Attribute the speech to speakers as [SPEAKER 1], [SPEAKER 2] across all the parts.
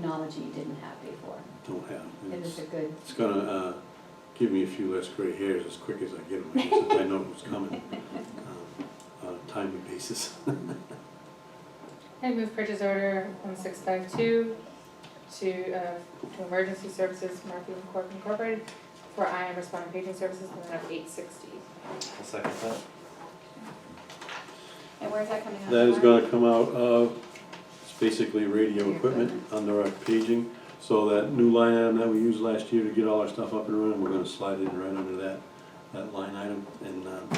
[SPEAKER 1] technology you didn't have before.
[SPEAKER 2] don't have. and
[SPEAKER 1] It
[SPEAKER 2] It's
[SPEAKER 1] is a good,
[SPEAKER 2] it's gonna uh, give me a few less gray hairs as quick as I get them, since I know who's coming um, on a timely basis.
[SPEAKER 3] I move purchase order one six five two to, uh, to Emergency Services Marketing Corp Incorporated for I am responding paging services in the amount of eight sixty.
[SPEAKER 4] I'll second that.
[SPEAKER 5] And where's that coming out?
[SPEAKER 2] That is
[SPEAKER 5] of?
[SPEAKER 2] gonna come out of, it's basically radio equipment under our paging. So that new line item that we used last year to get all our stuff up and running, we're gonna slide it right under that, that line item. And, um,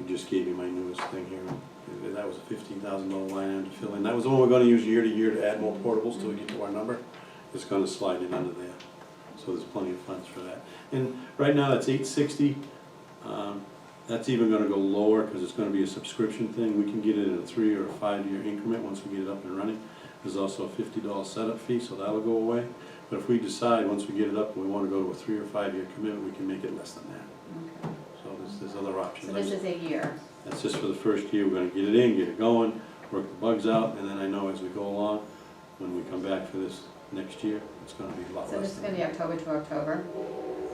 [SPEAKER 2] you just gave me my newest thing here. That was a fifteen thousand dollar line item to fill in. That was the one we're gonna use year to year to add more portables till we get to our number. It's gonna slide in under there. So there's plenty of funds for that. And right now, that's eight sixty. Um, that's even gonna go lower, cause it's gonna be a subscription thing, we can get it in a three or a five-year increment once we get it up and running. There's also a fifty dollar setup fee, so that'll go away, but if we decide, once we get it up, we wanna go to a three or five-year commitment, we can make it less than that.
[SPEAKER 1] okay.
[SPEAKER 2] So there's, there's other options.
[SPEAKER 1] So this is a year.
[SPEAKER 2] That's just for the first year, we're gonna get it in, get it going, work the bugs out, and then I know as we go along, when we come back for this next year, it's gonna be a lot
[SPEAKER 1] So this
[SPEAKER 2] less
[SPEAKER 1] is
[SPEAKER 2] than
[SPEAKER 1] gonna be
[SPEAKER 2] that.
[SPEAKER 1] October to October,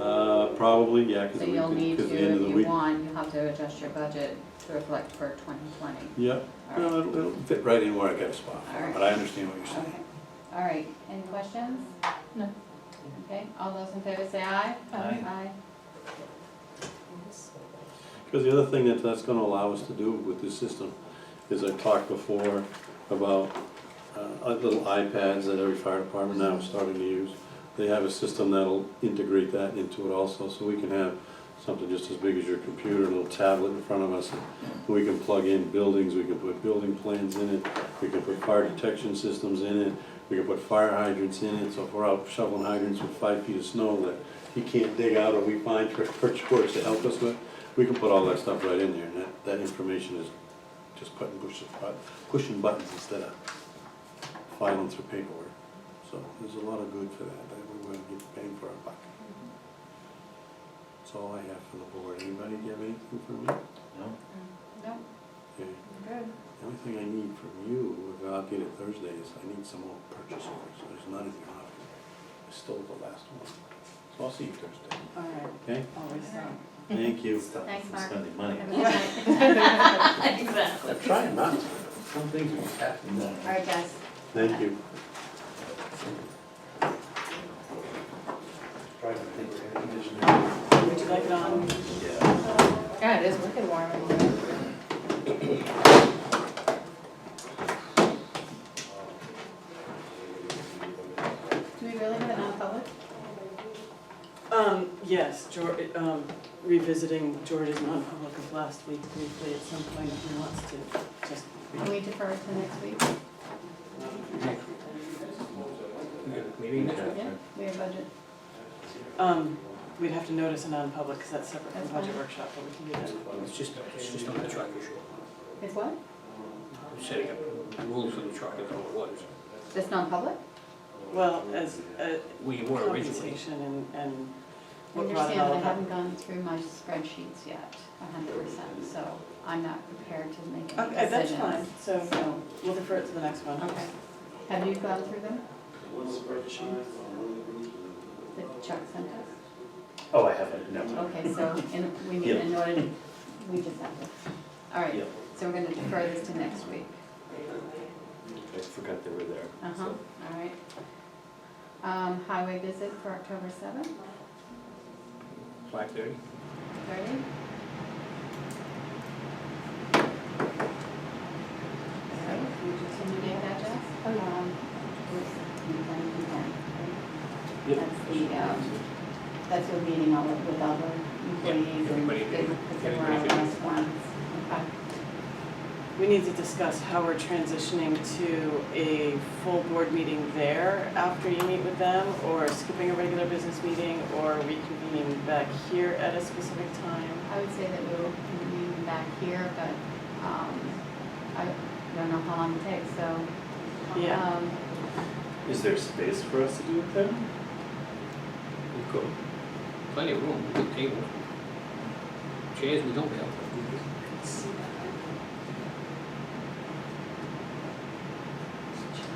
[SPEAKER 2] Uh, probably, yeah,
[SPEAKER 1] so
[SPEAKER 2] cause the week,
[SPEAKER 1] you'll need
[SPEAKER 2] cause
[SPEAKER 1] to,
[SPEAKER 2] the end of the
[SPEAKER 1] if you
[SPEAKER 2] week.
[SPEAKER 1] want, you'll have to adjust your budget to reflect for twenty twenty.
[SPEAKER 2] Yep,
[SPEAKER 1] All right,
[SPEAKER 2] No, it'll, it'll fit right in where I got a spot, for it, but I understand what you're
[SPEAKER 1] okay,
[SPEAKER 2] saying.
[SPEAKER 1] all right, any questions?
[SPEAKER 3] No.
[SPEAKER 1] Okay, all those in favor say aye?
[SPEAKER 5] Oh,
[SPEAKER 4] Aye.
[SPEAKER 1] Aye.
[SPEAKER 2] Because the other thing that that's gonna allow us to do with this system is I talked before about uh, little iPads that every fire department now is starting to use. They have a system that'll integrate that into it also, so we can have something just as big as your computer, a little tablet in front of us. We can plug in buildings, we can put building plans in it, we can put fire detection systems in it, we can put fire hydrants in it, so if we're out shoveling hydrants with five feet of snow that he can't dig out or we find for, for George to help us with, we can put all that stuff right in there, and that, that information is just putting, pushing, pushing buttons instead of filing through paperwork. So there's a lot of good for that, that we're gonna get bang for our buck. That's all I have for the board. Anybody have anything for me?
[SPEAKER 4] No?
[SPEAKER 1] Nope,
[SPEAKER 2] Okay.
[SPEAKER 1] good.
[SPEAKER 2] The only thing I need from you, if I'll get it Thursday, is I need some more purchase orders, there's none in your office. I stole the last one. So I'll see you Thursday,
[SPEAKER 1] All right,
[SPEAKER 2] okay?
[SPEAKER 1] always so.
[SPEAKER 2] Thank you.
[SPEAKER 4] Stop
[SPEAKER 5] Thanks,
[SPEAKER 4] from
[SPEAKER 5] Mark.
[SPEAKER 4] spending money.
[SPEAKER 1] Exactly.
[SPEAKER 2] I'm trying not to. Some things are happening.
[SPEAKER 1] All right, guys.
[SPEAKER 2] Thank you.
[SPEAKER 6] Would you like um, it on?
[SPEAKER 3] God, it is wicked warm in here.
[SPEAKER 1] Do we really have a non-public?
[SPEAKER 6] Um, yes, Geor um, revisiting George's non-public of last week briefly at some point if he wants to, just.
[SPEAKER 1] Can we defer it to next week?
[SPEAKER 4] Meeting
[SPEAKER 1] Yeah, we have budget.
[SPEAKER 6] Um, we'd have to notice a non-public because that's separate from
[SPEAKER 1] That's
[SPEAKER 6] budget
[SPEAKER 1] fine.
[SPEAKER 6] workshop, but we can do that.
[SPEAKER 7] It's just, it's just on the truck issue.
[SPEAKER 1] It's what?
[SPEAKER 7] I'm Setting up rules for the truck, that's all it was.
[SPEAKER 1] It's non-public?
[SPEAKER 6] Well, as, uh,
[SPEAKER 7] We were originally.
[SPEAKER 6] compensation and, and
[SPEAKER 1] I
[SPEAKER 6] what brought it
[SPEAKER 1] Understand,
[SPEAKER 6] all
[SPEAKER 1] but I
[SPEAKER 6] about.
[SPEAKER 1] haven't gone through my spreadsheets yet, a hundred percent, so I'm not prepared to make any
[SPEAKER 6] Okay, that's
[SPEAKER 1] decisions.
[SPEAKER 6] fine, so
[SPEAKER 1] So,
[SPEAKER 6] we'll defer it to the next one.
[SPEAKER 1] okay. Have you gone through them? That Chuck sent us?
[SPEAKER 4] Oh, I haven't, no.
[SPEAKER 1] Okay, so, and we need, in order, to- we just have to, all right,
[SPEAKER 4] Yep.
[SPEAKER 1] so we're gonna defer this to next week.
[SPEAKER 4] I forgot they were there.
[SPEAKER 1] Uh-huh,
[SPEAKER 4] so.
[SPEAKER 1] all right. Um, highway visit for October seventh,
[SPEAKER 7] Five thirty?
[SPEAKER 1] thirty? So, we continue to that, Jess? Um, with complaint consent.
[SPEAKER 7] Yep.
[SPEAKER 1] That's the, um, that's your meeting all of- with all the employees and
[SPEAKER 7] everybody
[SPEAKER 1] they,
[SPEAKER 7] did.
[SPEAKER 1] because they were on
[SPEAKER 7] Everybody did.
[SPEAKER 1] last ones. Okay.
[SPEAKER 6] We need to discuss how we're transitioning to a full board meeting there after you meet with them, or skipping a regular business meeting, or reconvening back here at a specific time.
[SPEAKER 1] I would say that we will meet back here, but, um, I don't know how long it takes, so.
[SPEAKER 6] Yeah.
[SPEAKER 1] Um,
[SPEAKER 4] Is there space for us to do it then?
[SPEAKER 7] We've got Plenty of room, good table. Chairs we don't
[SPEAKER 1] I
[SPEAKER 7] have.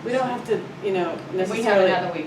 [SPEAKER 6] We don't have to, you know,
[SPEAKER 1] If we have
[SPEAKER 6] necessarily
[SPEAKER 1] another week,